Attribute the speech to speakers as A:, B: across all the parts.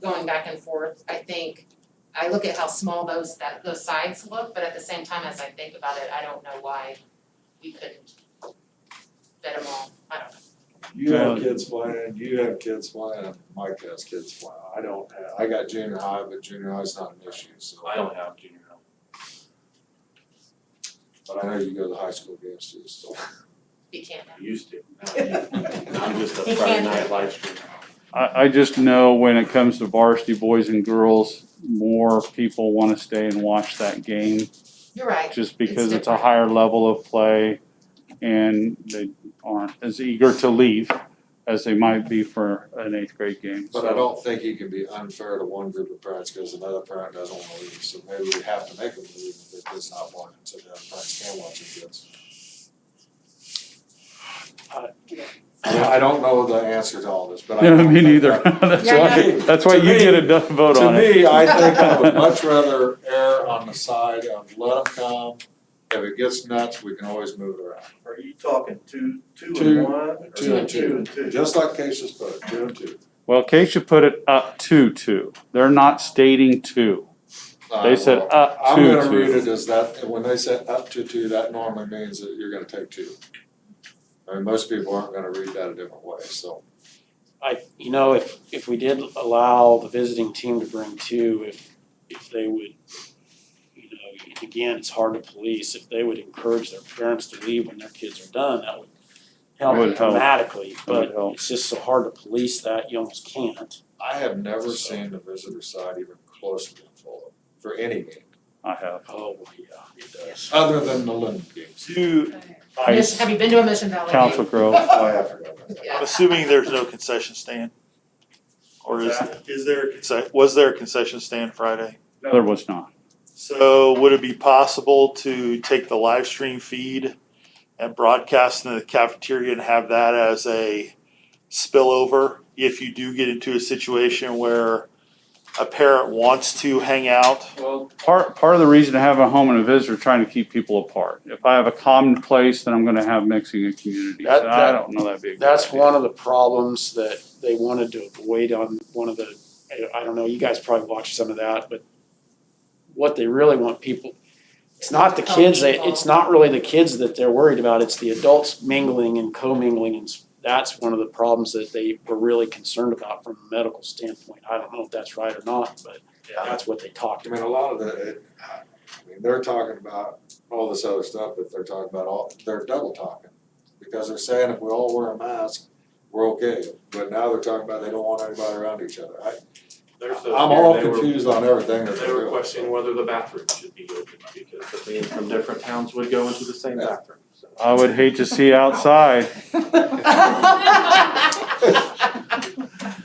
A: going back and forth, I think, I look at how small those that those sides look, but at the same time, as I think about it, I don't know why we couldn't fit them all, I don't know.
B: You have
C: Uh,
B: kids flying, you have kids flying, Mike has kids flying, I don't have, I got junior high, but junior high's not an issue, so.
C: I don't have junior high.
B: But I know you go to high school games too, so.
A: You can't have.
C: I used to. Now I'm just a
D: He
C: Friday
D: can't.
C: night live stream.
E: I, I just know when it comes to varsity boys and girls, more people wanna stay and watch that game,
A: You're right,
E: just because it's a
A: different.
E: higher level of play. And they aren't as eager to leave as they might be for an eighth grade game,
B: But I
E: so.
B: don't think you can be unfair to one group of parents, cause another parent doesn't wanna leave, so maybe we have to make them leave if their kid's not wanting, so the other parents can watch their kids. Yeah, I don't know the answer to all this, but I.
E: Yeah, me neither. That's
A: Yeah, I
E: why,
B: know.
E: that's why
B: To
E: you
B: me-
E: get a do- vote
B: To
E: on it.
B: me, I think I would much rather err on the side of let them come, if it gets nuts, we can always move it around.
F: Are you talking two, two
B: Two-
F: and one, or
B: Two and
F: two and two?
B: Just like Keisha's put, it, two and two.
E: Well, Keisha put it up to two. They're not stating two. They said
B: Uh,
E: up
B: I'm
E: to
B: gonna read
E: two.
B: it as that, when they say up to two, that normally means that you're gonna take two. I mean, most people aren't gonna read that a different way, so.
G: I, you know, if, if we did allow the visiting team to bring two, if, if they would, you know, and again, it's hard to police, if they would encourage their parents to leave when their kids are done, that would
E: That would
G: help
E: help.
G: dramatically,
E: would
G: but
E: help.
G: it's just so hard to police that, you almost can't.
B: I have never seen the visitor side even close to being full for any game,
E: I have.
G: Oh, yeah, it does.
B: other than the London games.
H: Two, I,
A: Mission- have you been to a Mission Valley?
E: Council Grove.
B: Oh, yeah, I forgot about that.
A: Yeah.
H: assuming there's no concession stand? Or is,
F: That- Is there,
H: conce- was there a concession stand Friday?
E: There was not.
F: so,
H: So would it be possible to take the live stream feed and broadcast in the cafeteria and have that as a spillover? If you do get into a situation where a parent wants to hang out
C: Well,
E: Part, part of the reason to have a home and a visitor, trying to keep people apart. If I have a common place, then I'm gonna have mixing of communities.
G: That-
E: And I
G: that-
E: don't know that'd be a good
G: That's
E: idea.
G: one of the problems that they wanted to avoid on one of the, I- I don't know, you guys probably watched some of that, but what they really want people, it's not the kids, they, it's not really the kids that they're worried about, it's the adults mingling and co-mingling and s- that's one of the problems that they were really concerned about from a medical standpoint. I don't know if that's right or not, but that's what they talked
B: I
G: about.
B: mean, a lot of the, it, I mean, they're talking about all this other stuff, but they're talking about all, they're double talking. Because they're saying if we all wear a mask, we're okay, but now they're talking about they don't want anybody around each other. I,
C: there's those,
B: I'm all
C: they were-
B: confused on everything that
C: They
B: they're
C: were
B: doing.
C: questioning whether the bathroom should be open because the men from different towns would go into the same
B: Yeah.
C: bathroom, so.
E: I would hate to see outside.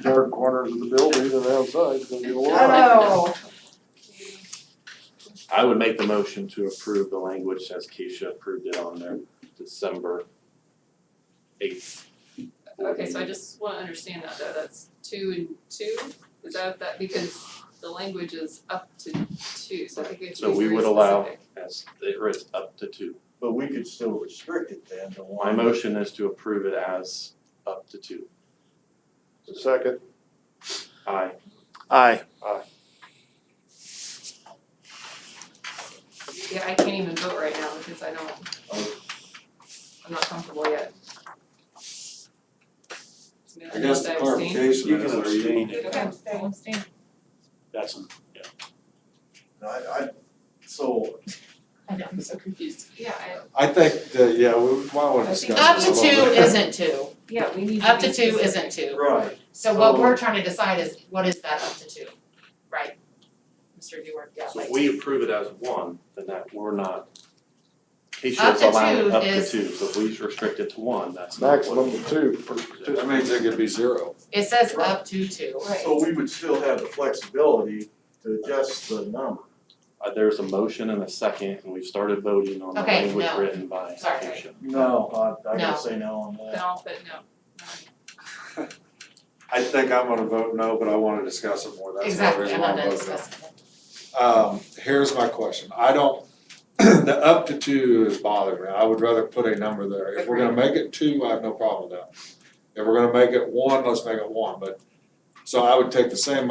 B: Dark corners of the building and outside, it's gonna be a
A: Oh.
C: I would make the motion to approve the language as Keisha approved it on their December eighth.
I: Okay, so I just wanna understand that though, that's two and two, is that that, because the language is up to two, so I think we have to
C: So
I: be
C: we
I: very
C: would allow
I: specific.
C: as it is up to two.
F: but we could still restrict it then to one.
C: My motion is to approve it as up to two.
B: Second.
C: Aye.
H: Aye.
I: Yeah, I can't even vote right now because I don't, I'm not comfortable yet. So maybe
B: I guess the
I: I'll abstain.
B: clarification
G: You
B: is,
G: can
B: are you
G: abstain,
A: You can abstain.
I: I'll abstain.
G: that's an
F: I, I, so,
A: I know, I'm so confused.
I: Yeah, I,
B: I think that, yeah, we might wanna
I: I think-
B: discuss
A: Up
B: this
A: to
B: a little
A: two
B: bit.
A: isn't two,
I: yeah, we need to
A: up
I: be
A: to two
I: specific.
A: isn't two.
F: right,
A: So what we're trying to decide is, what is that up to two, right? Mr. Dewar, yeah,
C: So
A: like.
C: if we approve it as one, then that we're not. Keisha
A: Up
C: is
A: to
C: allowing
A: two
C: it up to
A: is-
C: two, so if we restrict it to one, that's not what.
B: two. That means it could be zero.
A: It says up to two.
F: so we would still have the flexibility to adjust the number.
C: Uh, there's a motion and a second, and we've started voting on the
A: Okay,
C: language
A: no.
C: written by Keisha.
A: Sorry.
F: No, Uh, I, I
A: No.
F: gotta say no on
I: Then
F: that.
I: I'll put no, no.
B: I think I'm gonna vote no, but I wanna discuss it more, that's the
A: Exactly,
B: reason
A: I'm
B: why
A: not
B: I'm voting no.
A: done discussing it.
B: Um, here's my question, I don't, the up to two is bothering me, I would rather put a number there, if we're gonna make it two, I have no problem with that. If we're gonna make it one, let's make it one, but, so I would take the same